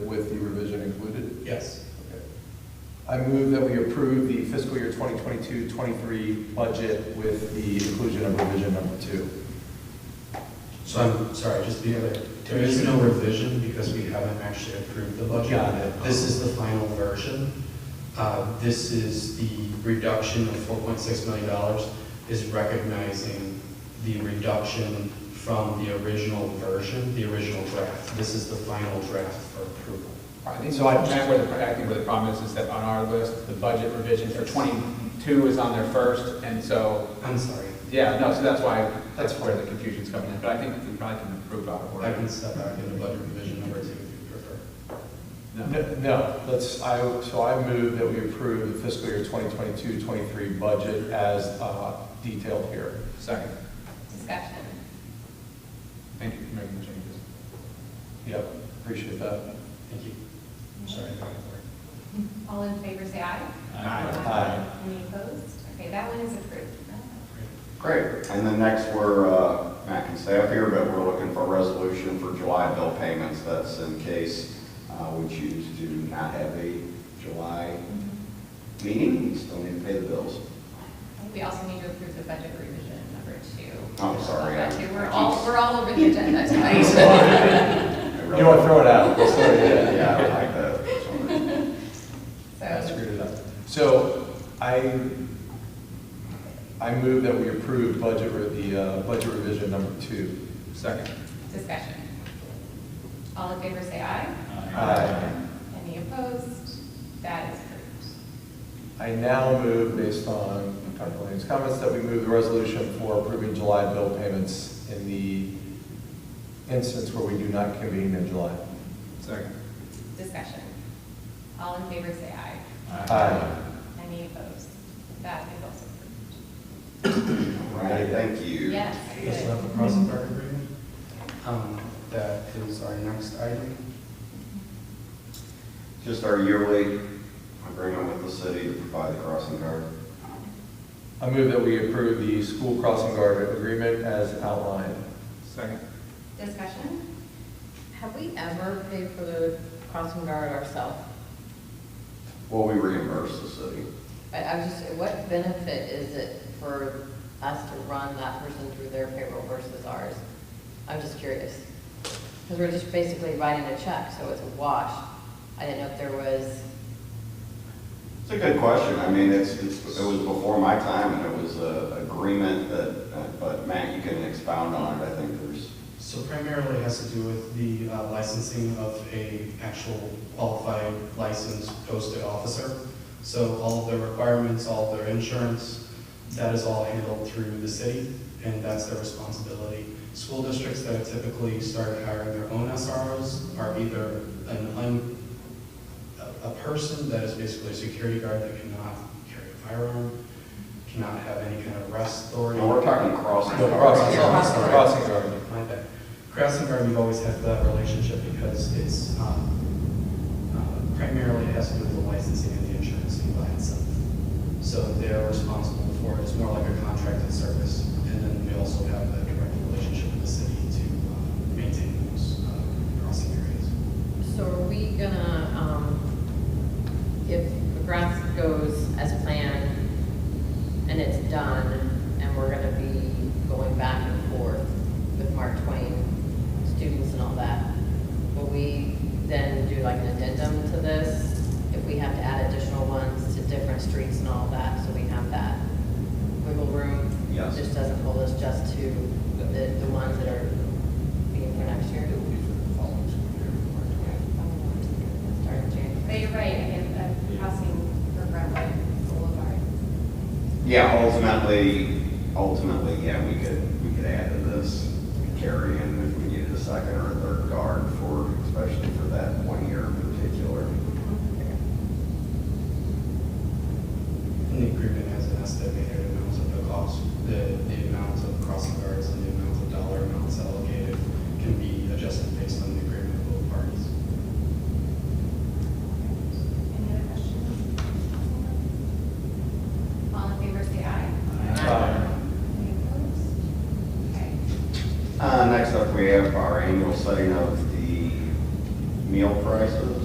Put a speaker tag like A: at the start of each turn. A: Yes.
B: Okay. I move that we approve the fiscal year 2022-23 budget with the inclusion of revision number two.
A: So I'm sorry, just the other, there is no revision because we haven't actually approved the budget.
B: Got it.
A: This is the final version. Uh, This is the reduction of $4.6 million is recognizing the reduction from the original version, the original draft. This is the final draft for approval.
C: I think, so I, Matt, where the, I think where the problem is, is that on our list, the budget revision for twenty-two is on there first, and so,
A: I'm sorry,
C: yeah, no, so that's why, that's where the confusion's coming in, but I think we probably can improve our
A: I
C: order.
A: can step back into budget revision number two if you prefer.
C: No.
B: N- No, let's, I, so I move that we approve the fiscal year 2022-23 budget as uh, detailed here.
C: Second,
D: Discussion.
C: thank you for making the changes.
B: Yep, appreciate that.
A: Thank you. Sorry, I got it.
D: All in favor, say aye.
B: Aye.
D: Any opposed? Okay, that one is approved.
E: Great, and then next, we're, uh, Matt can stay up here, but we're looking for a resolution for July bill payments. That's in case uh, we choose to not have a July meeting, we still need to pay the bills.
D: We also need to approve the budget revision number two.
E: I'm sorry,
D: That
E: I-
D: too. We're all, we're all over the agenda tonight.
B: You don't want to throw it out. Let's throw it in.
E: Yeah, I like that. Sorry.
B: I
D: So,
B: screwed it up. So I, I move that we approve budget, re- the uh, budget revision number two.
C: Second.
D: discussion. All in favor, say aye.
B: Aye.
D: Any opposed? That is approved.
B: I now move, based on Dr. Williams' comments, that we move the resolution for approving July bill payments in the instance where we do not convene in July.
C: Second.
D: Discussion. All in favor, say aye. Any opposed? That is also approved.
E: All Right, thank you.
D: Yes.
A: Yes,
D: good.
A: about the cross-border agreement. Um, That is our next item.
E: Just our yearly agreement with the city to provide the crossing guard.
B: I move that we approve the school crossing guard agreement as outlined.
C: Second.
D: Discussion?
F: Have we ever paid for the crossing guard ourselves?
E: Well, we reimburse the city.
F: I, I was just, what benefit is it for us to run that person through their payroll versus ours? I'm just curious. Because we're just basically writing a check, so it's a wash. I didn't know if there was,
E: It's a good question. I mean, it's, it's, it was before my time and it was a agreement that, uh, but Matt, you can expound on it. I think there's,
C: So primarily it has to do with the uh, licensing of a actual qualified licensed posted officer. So all of their requirements, all of their insurance, that is all handled through the city, and that's their responsibility. School districts that have typically started hiring their own SROs are either an un, a- a person that is basically a security guard that cannot carry a firearm, cannot have any kind of arrest authority.
E: and we're talking crossing.
B: No,
E: guard.
B: crossing guard,
F: Crossing guard.
B: crossing guard.
C: My bad. Crossing Guard, we've always had that relationship because it's, um, uh, primarily it has to do with the licensing and the insurance fee by itself. So they're responsible for it, it's more like a contracted service. And then we also have a direct relationship with the city to uh, maintain those uh, crossing areas.
F: so are we gonna, um, if the grass goes as planned and it's done, and we're gonna be going back and forth with Mark Twain students and all that, will we then do like an addendum to this? If we have to add additional ones to different streets and all that, so we have that wiggle room?
E: Yes.
F: Just doesn't hold us just to the, the ones that are being for next year? Start in January.
D: But you're right, again, the housing program, like Boulevard.
E: Yeah, ultimately, ultimately, yeah, we could, we could add to this, carry in if we needed a second or a third guard for, especially for that one year in particular.
C: And the agreement has an estimated amount of the cost, the, the amount of crossing guards and the amount of dollar amounts allocated can be adjusted based on the agreement of both parties.
D: Any other questions? All in favor, say aye.
B: Aye.
D: Any opposed? Okay.
E: Uh, next up, we have our annual setting of the meal prices.